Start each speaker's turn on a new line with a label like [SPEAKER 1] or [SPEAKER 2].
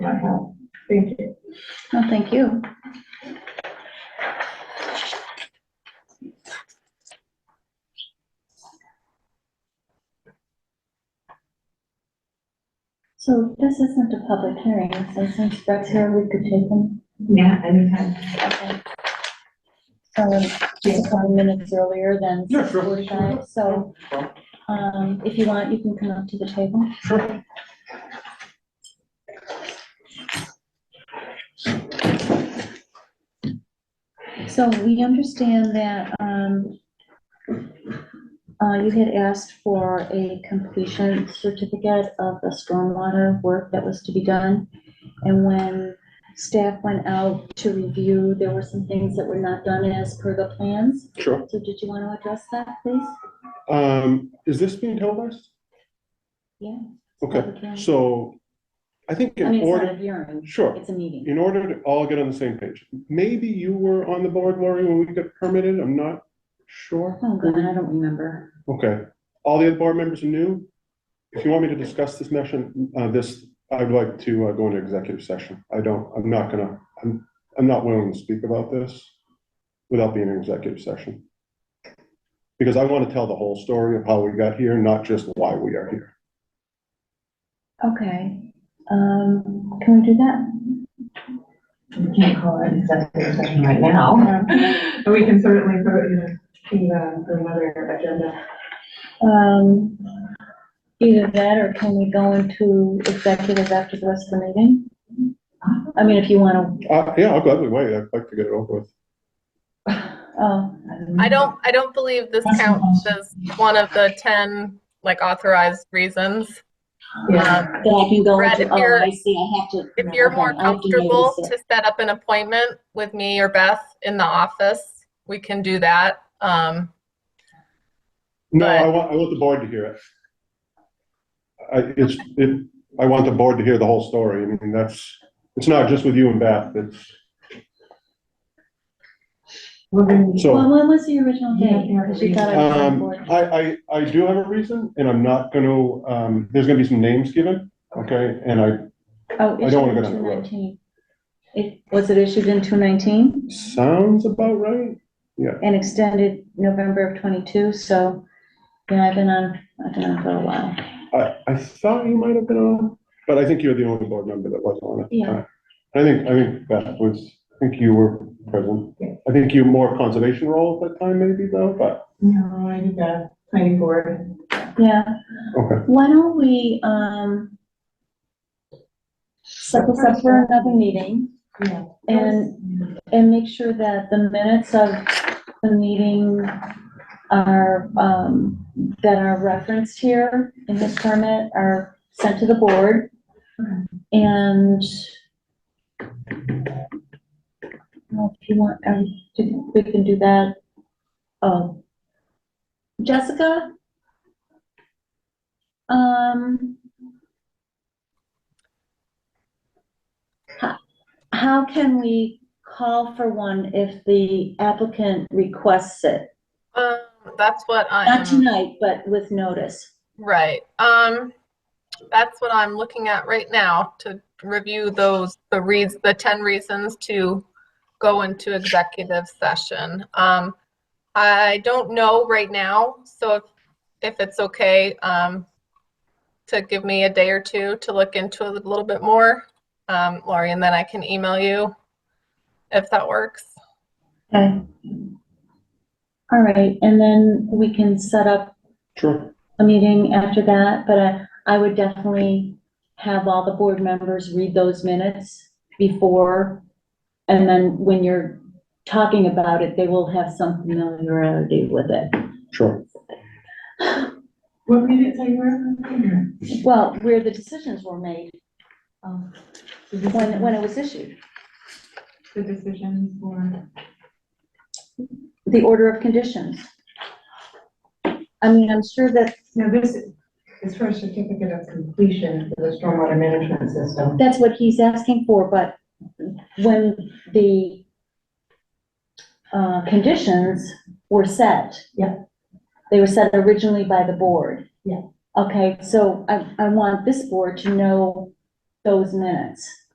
[SPEAKER 1] Thank you.
[SPEAKER 2] No, Oh, thank you. So this isn't a public hearing, so since Brett's here, we could take them.
[SPEAKER 1] Yeah, anytime.
[SPEAKER 2] Um, just twenty minutes earlier than
[SPEAKER 3] Yeah, sure.
[SPEAKER 2] 6:45, so, um, if you want, you can come up to the table.
[SPEAKER 3] Sure.
[SPEAKER 2] So we understand that, um, uh, you had asked for a completion certificate of the stormwater work that was to be done. And when staff went out to review, there were some things that were not done as per the plans.
[SPEAKER 3] Sure.
[SPEAKER 2] So did you want to address that, please?
[SPEAKER 3] Um, is this being televised?
[SPEAKER 2] Yeah.
[SPEAKER 3] Okay, so I think
[SPEAKER 2] I mean,
[SPEAKER 3] in
[SPEAKER 2] it's not a
[SPEAKER 3] order,
[SPEAKER 2] hearing,
[SPEAKER 3] sure,
[SPEAKER 2] it's a meeting.
[SPEAKER 3] in order to all get on the same page, maybe you were on the board, Lori, when we got permitted, I'm not sure.
[SPEAKER 2] Oh, God, I don't remember.
[SPEAKER 3] Okay, all the other board members are new. If you want me to discuss this motion, uh, this, I'd like to uh, go into executive session. I don't, I'm not gonna, I'm, I'm not willing to speak about this without being in executive session. Because I want to tell the whole story of how we got here, not just why we are here.
[SPEAKER 2] Okay, um, can we do that?
[SPEAKER 1] We can't call it an executive session right now. But we can certainly put it in, in uh, for another agenda.
[SPEAKER 2] Um, either that or can we go into executive after the rest of the meeting? I mean, if you wanna,
[SPEAKER 3] Uh, yeah, I'll gladly wait. I'd like to get it over with.
[SPEAKER 2] oh,
[SPEAKER 4] I don't, I don't believe this counts as one of the 10, like, authorized reasons.
[SPEAKER 1] Yeah,
[SPEAKER 4] Um,
[SPEAKER 2] then I can go
[SPEAKER 4] Brad,
[SPEAKER 2] into,
[SPEAKER 4] if
[SPEAKER 2] oh,
[SPEAKER 4] you're-
[SPEAKER 2] I see, I have to.
[SPEAKER 4] If you're
[SPEAKER 2] okay,
[SPEAKER 4] more
[SPEAKER 2] I have to notice
[SPEAKER 4] comfortable
[SPEAKER 2] it.
[SPEAKER 4] to set up an appointment with me or Beth in the office, we can do that. Um,
[SPEAKER 3] No,
[SPEAKER 4] But-
[SPEAKER 3] I want, I want the board to hear it. I, it's, it, I want the board to hear the whole story. I mean, that's, it's not just with you and Beth, it's,
[SPEAKER 1] we're gonna-
[SPEAKER 3] so.
[SPEAKER 2] Well, when was the original
[SPEAKER 1] Yeah,
[SPEAKER 2] date?
[SPEAKER 1] yeah.
[SPEAKER 2] 'Cause you thought I was on
[SPEAKER 3] Um,
[SPEAKER 2] board.
[SPEAKER 3] I, I, I do have a reason, and I'm not gonna, um, there's gonna be some names given, okay, and I,
[SPEAKER 2] Oh,
[SPEAKER 3] I
[SPEAKER 2] issued
[SPEAKER 3] don't wanna
[SPEAKER 2] in
[SPEAKER 3] go down that road.
[SPEAKER 2] 219. It, was it issued in two nineteen
[SPEAKER 3] sounds about right?
[SPEAKER 2] and extended November of twenty-two, so, you know, I've been on, I've been on for a while.
[SPEAKER 3] I, I thought you might have been on, but I think you're the only board member that was on at the
[SPEAKER 2] Yeah.
[SPEAKER 3] time. I think, I think Beth was, I think you were present, I think you were more conservation role at that time maybe though, but,
[SPEAKER 1] No, I need the planning board.
[SPEAKER 2] Yeah,
[SPEAKER 3] okay.
[SPEAKER 2] Why don't we, um, set this up for another meeting
[SPEAKER 1] Yeah.
[SPEAKER 2] and, and make sure that the minutes of the meeting are, um, that are referenced here in this permit are sent to the board. And well, if you want, um, we can do that. Um, Jessica? Um. ho- How can we call for one if the applicant requests it?
[SPEAKER 4] um, that's what
[SPEAKER 2] Not
[SPEAKER 4] I'm,
[SPEAKER 2] tonight, but with notice.
[SPEAKER 4] right. Um, that's what I'm looking at right now to review those, the reads, the 10 reasons to go into executive session. Um, I don't know right now, so if, if it's okay, um, to give me a day or two to look into it a little bit more, um, Lori, and then I can email you if that works.
[SPEAKER 2] Okay. All right, and then we can set up
[SPEAKER 3] Sure.
[SPEAKER 2] a meeting after that, but I, I would definitely have all the board members read those minutes before, and then when you're talking about it, they will have some familiarity with it.
[SPEAKER 3] Sure.
[SPEAKER 1] What minutes are you on?
[SPEAKER 2] Well, where the decisions were made,
[SPEAKER 1] Um,
[SPEAKER 2] Oh. when, when it was issued,
[SPEAKER 1] The decision for,
[SPEAKER 2] the order of conditions. I mean, I'm sure that,
[SPEAKER 1] now this is for a certificate of completion for the stormwater management system.
[SPEAKER 2] that's what he's asking for, but when the uh, conditions were set.
[SPEAKER 1] Yeah.
[SPEAKER 2] They were set originally by the board.
[SPEAKER 1] Yeah.
[SPEAKER 2] Okay, so I, I want this board to know those minutes.